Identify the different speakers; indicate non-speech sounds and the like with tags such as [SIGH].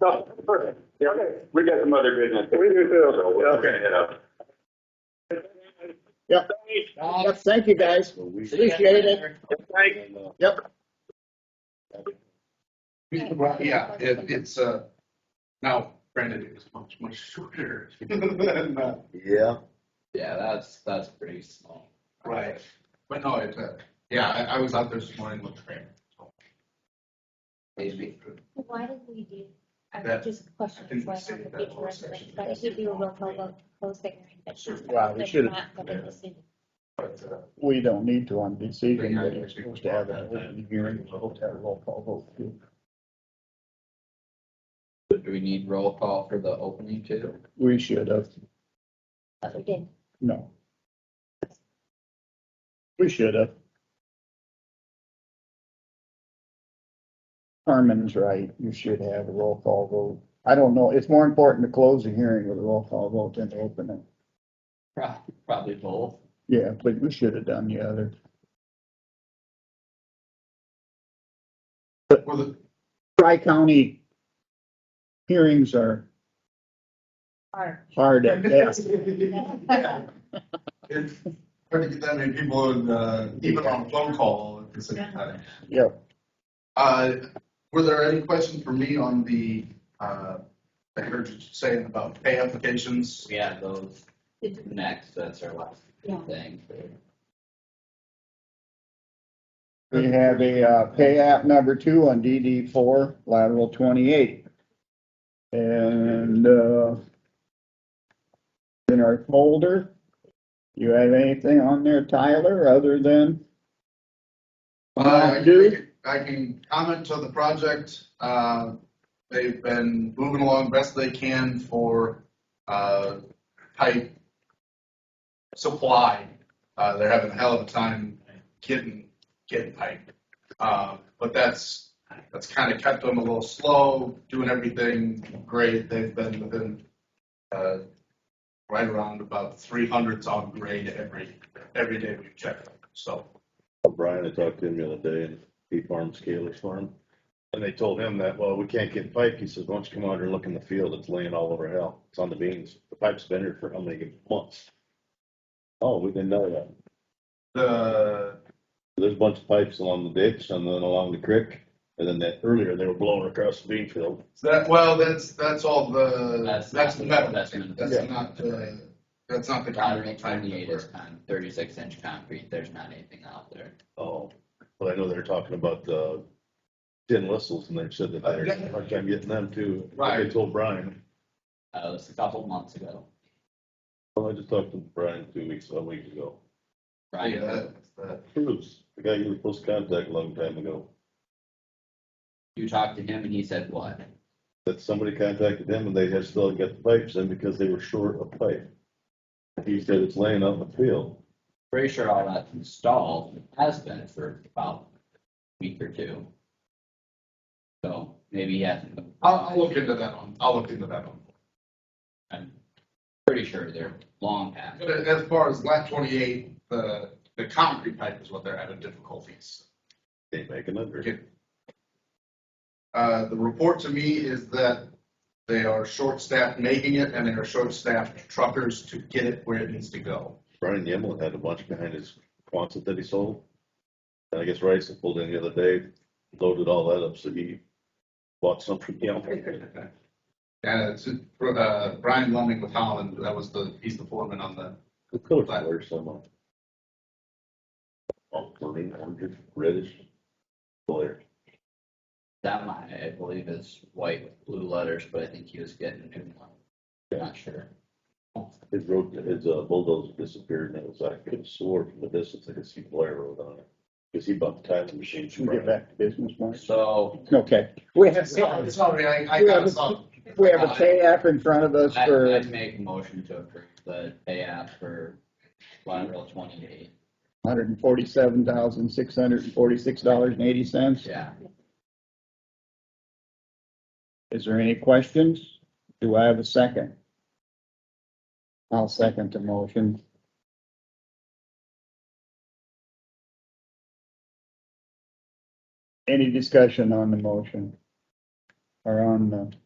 Speaker 1: No, perfect. Yeah, okay.
Speaker 2: We got some other business.
Speaker 1: We do
Speaker 2: So
Speaker 1: too.
Speaker 2: we're
Speaker 1: Yeah.
Speaker 2: gonna head up.
Speaker 3: Yep. Yep, Uh, thank you, guys. Appreciate it. Yep.
Speaker 4: Yeah, it, it's, uh, now granted, it was much, much shorter than that.
Speaker 5: Yeah.
Speaker 6: Yeah, that's, that's pretty small.
Speaker 4: Right. But no, it, uh, yeah, I, I was out there this morning with Fran. so.
Speaker 6: Maybe.
Speaker 7: Why did we do, I mean,
Speaker 4: That-
Speaker 7: just a question,
Speaker 4: I think
Speaker 7: why
Speaker 4: we
Speaker 7: not the
Speaker 4: saved that
Speaker 7: future
Speaker 4: whole
Speaker 7: residents,
Speaker 4: section.
Speaker 7: why did we do a roll call vote, close the hearing? That she's not-
Speaker 3: Wow, we
Speaker 7: that's
Speaker 3: should've-
Speaker 7: not what it was in.
Speaker 4: But, uh,
Speaker 3: We don't need to on decision,
Speaker 4: Yeah,
Speaker 3: but it's supposed to have an open hearing, it's supposed to have a roll call vote too.
Speaker 6: Do we need roll call for the opening too?
Speaker 3: We should have,
Speaker 7: But we did,
Speaker 3: no. We should have. Herman's right, you should have a roll call vote. I don't know, it's more important to close the hearing with a roll call vote than to open it.
Speaker 6: Prob- Probably both.
Speaker 3: Yeah, but we should have done the other.
Speaker 4: well, the,
Speaker 3: Tri-county hearings are
Speaker 7: our,
Speaker 3: hard at best.
Speaker 4: Yeah. It's hard to get that many people in, uh, even on a phone call at the same time.
Speaker 3: Yep.
Speaker 4: Uh, were there any questions for me on the, uh, I heard you saying about pay applications?
Speaker 6: [LAUGHS] We have those next, that's our last
Speaker 7: Yeah.
Speaker 6: thing.
Speaker 3: We have a uh, pay app number two on DD four lateral twenty-eight. And, uh, in our folder, you have anything on there, Tyler, other than?
Speaker 4: Uh, I
Speaker 3: Do-
Speaker 4: can- I can comment to the project. Uh, They've been moving along best they can for uh, pipe supply. Uh, They're having a hell of a time getting, getting pipe. Uh, But that's, that's kind of kept them a little slow, doing everything great. They've been within, uh, right around about 300s on grade every, every day we've checked them, so.
Speaker 5: Brian, I talked to him the other day and he farms Kayla's farm. And they told him that, well, we can't get pipe. He says, why don't you come out here and look in the field? It's laying all over hell. It's on the beans. The pipe's been here for how many months? Oh, we didn't know that.
Speaker 4: The
Speaker 5: There's a bunch of pipes along the ditch and then along the creek. And then that earlier, they were blowing across the bean field.
Speaker 4: That, well, that's, that's all the,
Speaker 6: That's
Speaker 4: that's
Speaker 6: not
Speaker 4: the
Speaker 6: the
Speaker 4: metal, that's
Speaker 6: investment.
Speaker 5: Yeah.
Speaker 4: not the, that's not the
Speaker 6: Lateral
Speaker 4: concrete type
Speaker 6: twenty-eight is
Speaker 4: number.
Speaker 6: con, thirty-six inch concrete, there's not anything out there.
Speaker 5: Oh, but I know they're talking about the tin whistles and they said that they're, having a hard time getting them too. I
Speaker 4: Right.
Speaker 5: told Brian.
Speaker 6: Uh, it was a couple months ago.
Speaker 5: Well, I just talked to Brian two weeks, a week ago.
Speaker 4: Yeah,
Speaker 6: Brian,
Speaker 4: that's the-
Speaker 5: Bruce, the guy you were supposed to contact a long time ago,
Speaker 6: you talked to him and he said what?
Speaker 5: that somebody contacted him and they had still got the pipes in because they were short of pipe. He said it's laying out in the field.
Speaker 6: Pretty sure all that's installed, It has been for about a week or two. So maybe he hasn't.
Speaker 4: I'll, I'll look into that one, I'll look into that one.
Speaker 6: I'm pretty sure they're long past.
Speaker 4: But as far as lat twenty-eight, the, the concrete pipe is what they're having difficulties.
Speaker 5: They make another.
Speaker 4: Okay. Uh, the report to me is that they are short-staffed making it, and they are short-staffed truckers to get it where it needs to go.
Speaker 5: Brian Yemlin had a bunch behind his Quonset that he sold. And I guess Rice had pulled in the other day, loaded all that up, so he bought some from Yemlin.
Speaker 4: Yeah, it's, uh, Brian Lumming with Holland, that was the, he's the foreman on the
Speaker 5: The color flatters someone. Oh, green, orange, reddish. Blair.
Speaker 6: That one, I believe, is white with blue letters, but I think he was getting a new one. I'm Not sure.
Speaker 5: His road, his uh, bulldozer disappeared, and it was, I could have swore from the distance I could see Blair Road on it. Because he bought the tithing machine.
Speaker 3: Should we get back to business one?
Speaker 6: So
Speaker 3: Okay. We have,
Speaker 4: Sorry, sorry, I, I
Speaker 3: Yeah,
Speaker 4: got
Speaker 3: but-
Speaker 4: some.
Speaker 3: we have a pay app in front of us
Speaker 6: I,
Speaker 3: for,
Speaker 6: I'd make a motion to approve the pay app for lateral twenty-eight.
Speaker 3: Hundred and forty-seven thousand, six hundred and forty-six dollars and eighty cents.
Speaker 6: Yeah,
Speaker 3: Is there any questions? Do I have a second? I'll second the motion. Any discussion on the motion? Or on the